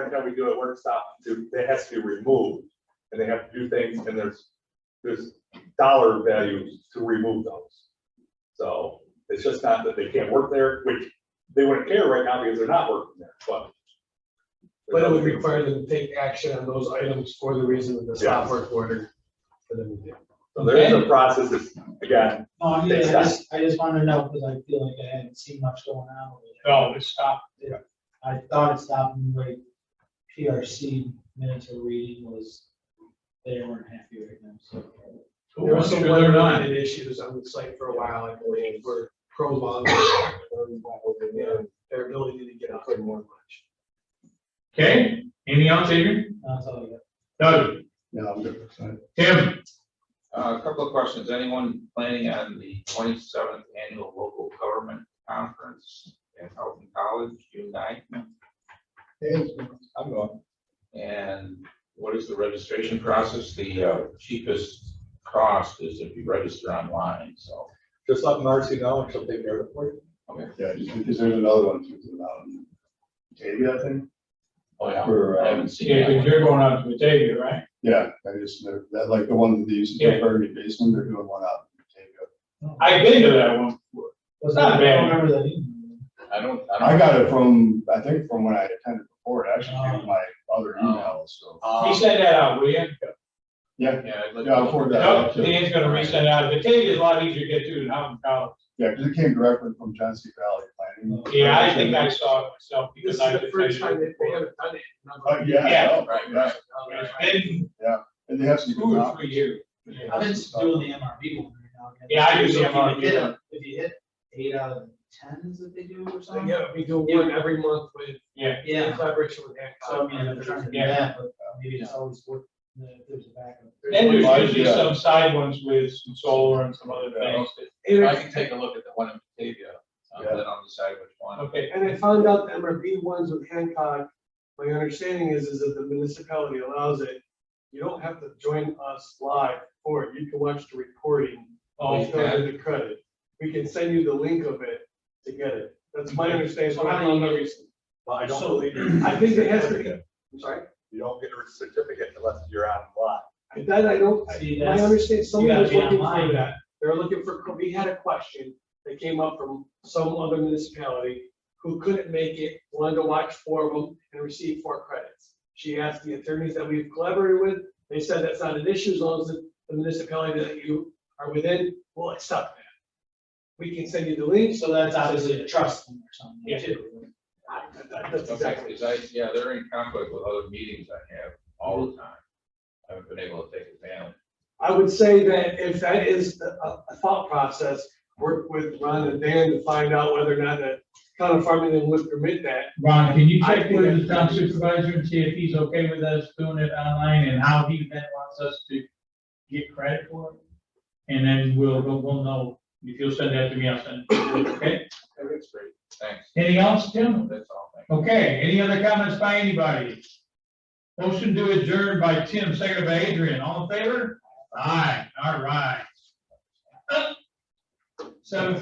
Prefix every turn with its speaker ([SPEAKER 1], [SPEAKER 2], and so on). [SPEAKER 1] things that we do at workshop, to- that has to be removed. And they have to do things, and there's, there's dollar values to remove those. So it's just not that they can't work there, which they wouldn't care right now because they're not working there, but.
[SPEAKER 2] But it would require them to take action on those items for the reason of the stop
[SPEAKER 1] Yes.
[SPEAKER 2] work order. for them to do.
[SPEAKER 1] So there is a process, it's, again,
[SPEAKER 3] No, I mean, I just, I just wanted to know, because I feel like I hadn't seen much going on. over there.
[SPEAKER 4] No, Oh, it stopped.
[SPEAKER 3] I thought it stopped when like PRC minutes of reading was, they weren't happy right now, so.
[SPEAKER 2] There were some weather-related issues on the site for a while, I believe, were prolonged. and Their ability to get out there more much.
[SPEAKER 4] Okay, anything else, Adrian?
[SPEAKER 3] That's all I got.
[SPEAKER 4] Doug,
[SPEAKER 5] No, I'm good.
[SPEAKER 4] Tim,
[SPEAKER 6] Uh, A couple of questions. Anyone planning on the twenty-seventh annual local government conference at Elton College, June 9th? I'm going. And what is the registration process? The uh, cheapest cost is if you register online, so.
[SPEAKER 1] just let Marcy know and she'll take care of it for you.
[SPEAKER 5] Yeah, because there's another one to do about Katie, I think.
[SPEAKER 6] Oh, yeah.
[SPEAKER 5] For,
[SPEAKER 6] I
[SPEAKER 5] um,
[SPEAKER 6] haven't seen
[SPEAKER 4] yeah,
[SPEAKER 6] that.
[SPEAKER 4] because you're going out to Batavia, right?
[SPEAKER 5] yeah, I just, they're- that, like the one that they used to do for the basement, they're doing one out. in Batavia.
[SPEAKER 4] I've been to that one. before.
[SPEAKER 3] Was
[SPEAKER 4] Not
[SPEAKER 3] that, I
[SPEAKER 4] bad.
[SPEAKER 3] don't remember that meeting.
[SPEAKER 6] I don't. don't-
[SPEAKER 5] I got it from, I think from when I attended before, it actually came to
[SPEAKER 4] Oh.
[SPEAKER 5] my other email, so.
[SPEAKER 2] Uh-huh.
[SPEAKER 4] He
[SPEAKER 6] Um,
[SPEAKER 4] sent that out, will you?
[SPEAKER 5] Yeah,
[SPEAKER 6] Yeah. I'd like-
[SPEAKER 5] yeah, I'll forward that
[SPEAKER 4] No,
[SPEAKER 5] out too.
[SPEAKER 4] Dan's gonna resend out. Batavia's a lot easier to get to than Houghton College.
[SPEAKER 5] Yeah, because it came directly from Johnson Valley Planning.
[SPEAKER 4] Yeah, I think I saw it myself
[SPEAKER 2] This is
[SPEAKER 4] because I.
[SPEAKER 2] the first time that they haven't done it. in another-
[SPEAKER 5] Oh, yeah.
[SPEAKER 4] Yeah,
[SPEAKER 5] no,
[SPEAKER 6] right,
[SPEAKER 5] yeah.
[SPEAKER 4] It's been
[SPEAKER 5] And they have some.
[SPEAKER 4] two
[SPEAKER 5] good
[SPEAKER 4] or
[SPEAKER 5] options.
[SPEAKER 4] three years.
[SPEAKER 5] Yeah.
[SPEAKER 3] I've been doing the MRB one right now.
[SPEAKER 4] Yeah, I do the
[SPEAKER 3] If you
[SPEAKER 4] MRB.
[SPEAKER 3] hit a- If you hit eight out of ten is that they do or something?
[SPEAKER 2] Yeah, we do one every month with,
[SPEAKER 4] Yeah,
[SPEAKER 2] in
[SPEAKER 3] Yeah,
[SPEAKER 2] collaboration with that.
[SPEAKER 3] so I mean, I'm trying to do that, but maybe it's always worth, if there's a backup.
[SPEAKER 4] and
[SPEAKER 5] Yeah.
[SPEAKER 4] there's usually some side ones with some solar and some other things. that-
[SPEAKER 6] I
[SPEAKER 2] Eric,
[SPEAKER 6] can take a look at the one in Batavia, um,
[SPEAKER 5] Yeah.
[SPEAKER 6] then I'll decide which one.
[SPEAKER 4] Okay,
[SPEAKER 2] And I found out the MRB ones with Hancock, my understanding is, is that the municipality allows it. You don't have to join us live for it, you can watch the recording,
[SPEAKER 4] oh,
[SPEAKER 2] which goes into credit. We can send you the link of it to get it, that's my understanding, so I don't know.
[SPEAKER 1] But I don't
[SPEAKER 2] So,
[SPEAKER 1] believe. you-
[SPEAKER 2] I think it has to be- I'm sorry,
[SPEAKER 1] You don't get a certificate unless you're on lot.
[SPEAKER 2] I- that I don't, I-
[SPEAKER 3] See,
[SPEAKER 2] my
[SPEAKER 3] that's,
[SPEAKER 2] understanding, someone
[SPEAKER 3] gotta
[SPEAKER 2] was
[SPEAKER 3] be
[SPEAKER 2] looking
[SPEAKER 3] online.
[SPEAKER 2] for that, they were looking for, we had a question that came up from some other municipality who couldn't make it, wanted to watch four of them and receive four credits. She asked the attorneys that we've collaborated with, they said that's not an issue as long as the municipality that you are within will accept that. We can send you the links,
[SPEAKER 3] so that's obviously a trust thing or something
[SPEAKER 4] Yeah.
[SPEAKER 3] too.
[SPEAKER 2] That- that- that's
[SPEAKER 6] Okay,
[SPEAKER 2] exactly.
[SPEAKER 6] because I, yeah, they're in conflict with other meetings I have all the time. I haven't been able to take advantage.
[SPEAKER 2] I would say that if that is a- a, a thought process, work with Ron and Dan to find out whether or not the town of Farmington would permit that.
[SPEAKER 4] Ron, can you
[SPEAKER 2] I
[SPEAKER 4] check
[SPEAKER 2] think that's-
[SPEAKER 4] with the town supervisor and see if he's okay with us doing it online and how he then wants us to get credit for it? And then we'll, we'll, we'll know, if you'll send that to me, I'll send it, to you, okay?
[SPEAKER 6] That's great. Thanks.
[SPEAKER 4] Anything else, Tim?
[SPEAKER 6] That's all. Thank you.
[SPEAKER 4] Okay, any other comments by anybody? Motion to adjourn by Tim, second by Adrian, all in favor? Aye, all right. Seven